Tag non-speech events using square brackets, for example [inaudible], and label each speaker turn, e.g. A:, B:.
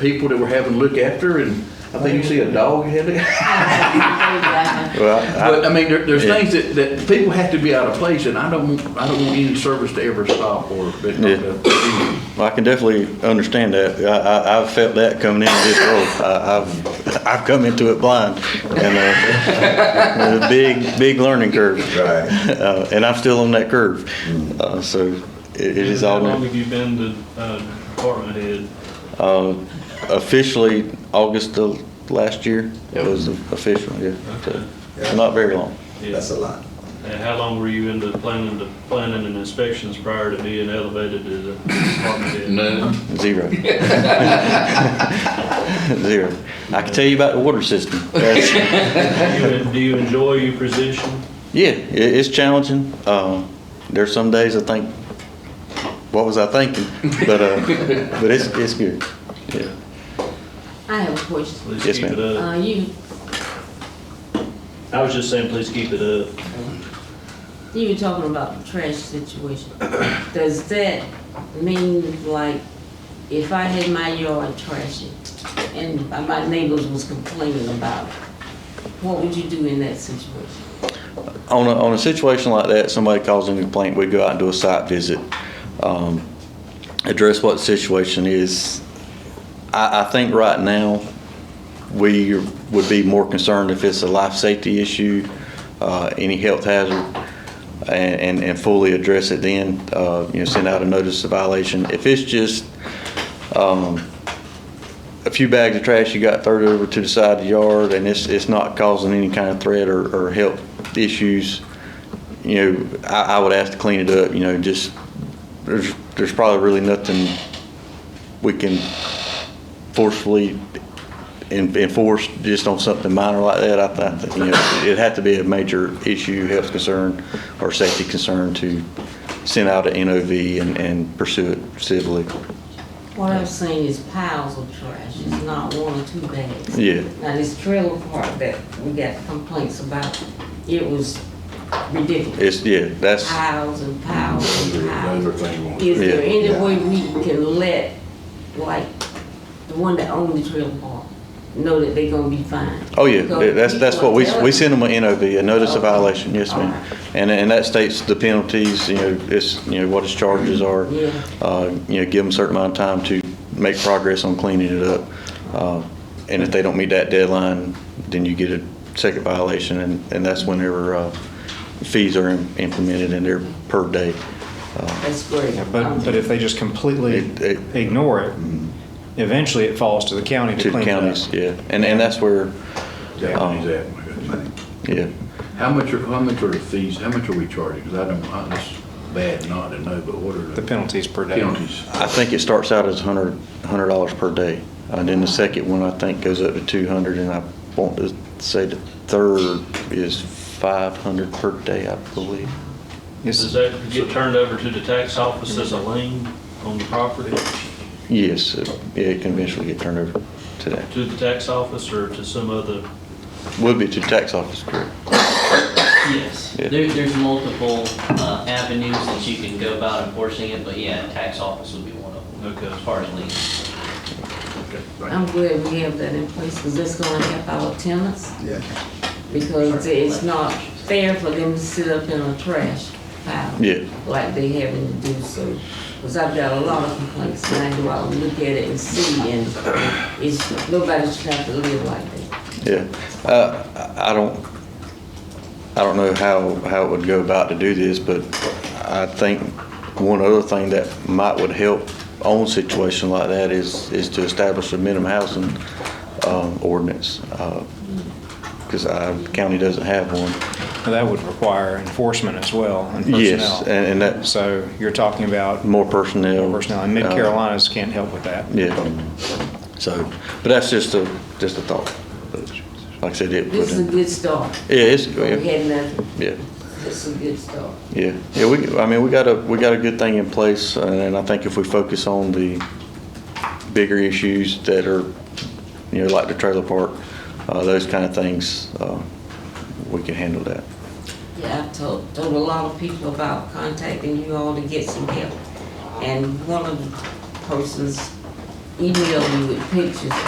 A: people that we're having to look after, and I think you see a dog you had to.
B: Well,
A: [laughs] But I mean, there, there's
B: Yeah.
A: things that, that people have to be out of place, and I don't, want- I don't want any service to ever stop or. but-
B: Yeah. I, I can definitely understand that. I, I, I've felt that coming into this role. I, I've, I've come into it blind and, uh, with a big, big learning curve.
C: Right.
B: [laughs] Uh, and I'm still on that curve. Uh, so it, it is all.
D: How long have you been the uh, department head?
B: Uh, officially, August of last year
A: Yep.
B: was official, yeah.
D: Okay.
B: So, Not very long.
D: Yeah.
C: That's a lot.
D: And how long were you into planning, the planning and inspections prior to being elevated to the department head?
A: No.
B: Zero. [laughs] Zero. I can tell you about the water system. That's-
D: Do you- Do you enjoy your position?
B: Yeah, it, it's challenging. Um, there's some days I think, what was I thinking? But uh, but it's it's good. Yeah.
E: I have a question.
D: Please
B: Yes,
D: keep it
E: Uh,
D: up.
E: you,
D: I was just saying, please keep it up.
E: you were talking about the trash situation. [coughs] Does that mean like if I had my yard trashy and my neighbors was complaining about it, what would you do in that situation?
B: On a, on a situation like that, somebody calls in a complaint, we go out and do a site visit, um, address what the situation is. I, I think right now, we would be more concerned if it's a life safety issue, uh, any health hazard, and, and, and fully address it then, uh, you know, send out a notice of violation. If it's just, um, a few bags of trash you got thrown over to the side of the yard and it's, it's not causing any kind of threat or, or health issues, you know, I, I would ask to clean it up, you know, just, there's, there's probably really nothing we can forcefully en- enforce just on something minor like that. I thi- I think, you know, it'd have to be a major issue, health concern or safety concern to send out an NOV and, and pursue it civilly.
E: What I'm saying is piles of trash, it's not one or two bags.
B: Yeah.
E: Now, this trailer park that we got complaints about, it was ridiculous.
B: It's, yeah, that's.
E: piles and piles and piles.
A: Well,
E: Is there
B: Yeah.
E: any way we can let, like, the one that owned the trailer park know that they are gonna be fine?
B: Oh, yeah,
E: Because
B: Yeah, that's, that's
E: people
B: what we,
E: are telling-
B: we send them an NOV, a notice of
E: Okay.
B: violation, yes, ma'am. And, and that states the penalties, you know, it's, you know, what his charges are.
E: Yeah.
B: Uh, you know, give them a certain amount of time to make progress on cleaning it up. Uh, And if they don't meet that deadline, then you get a second violation, and, and that's whenever, uh, fees are im- implemented in there per day.
E: That's great.
F: Yeah, But, but if they just completely
B: It- it-
F: ignore it, eventually it falls to the county
B: To the
F: to clean it up.
B: counties, yeah, and, and that's where, yeah.
A: How much are, how much are the fees, how much are we charging? Because I don't, I- it's bad not to know, but what are
F: The
A: the
F: penalties per day.
A: penalties?
B: I think it starts out as hundred, hundred dollars per day, and then the second one, I think, goes up to two hundred, and I want to say the third is five hundred per day, I believe.
D: Does
F: It's-
D: that get turned over to the tax office as a lien on the property,
B: Yes, it- yeah, it can eventually get turned over to that.
D: to the tax office or to some other?
B: Would be to the tax office, correct?
G: Yes,
B: Yeah.
G: there, there's multiple uh, avenues that you can go about enforcing it, but yeah, tax office would be one of them.
D: Okay.
G: As far as liens.
E: I'm glad we have that in place, because that's gonna help our tenants,
C: Yeah.
E: because it's not fair for them to sit up in a trash pile.
B: Yeah.
E: Like they having to do so, because I've got a lot of complaints, and I go out and look at it and see, and it's, nobody's trying to live like that.
B: Yeah, uh, I I don't, I don't know how, how it would go about to do this, but I think one other thing that might would help on a situation like that is, is to establish a minimum housing, um, ordinance. uh, Cause our county doesn't have one.
F: That would require enforcement as well and
B: Yes,
F: personnel.
B: and, and that's
F: So you're talking about
B: more personnel.
F: personnel, and
B: uh,
F: Mid-Carolinas can't help with that.
B: Yeah, so, but that's just a, just a thought. Like I said, it would,
E: This is a
B: yeah,
E: good start.
B: it's,
E: We had nothing.
B: yeah.
E: This is a good start.
B: Yeah, yeah, we, I mean, we got a, we got a good thing in place, and I think if we focus on the bigger issues that are, you know, like the trailer park, uh, those kind of things, uh, we can handle that.
E: Yeah, I've told, told a lot of people about contacting you all to get some help. And one of the persons email you with pictures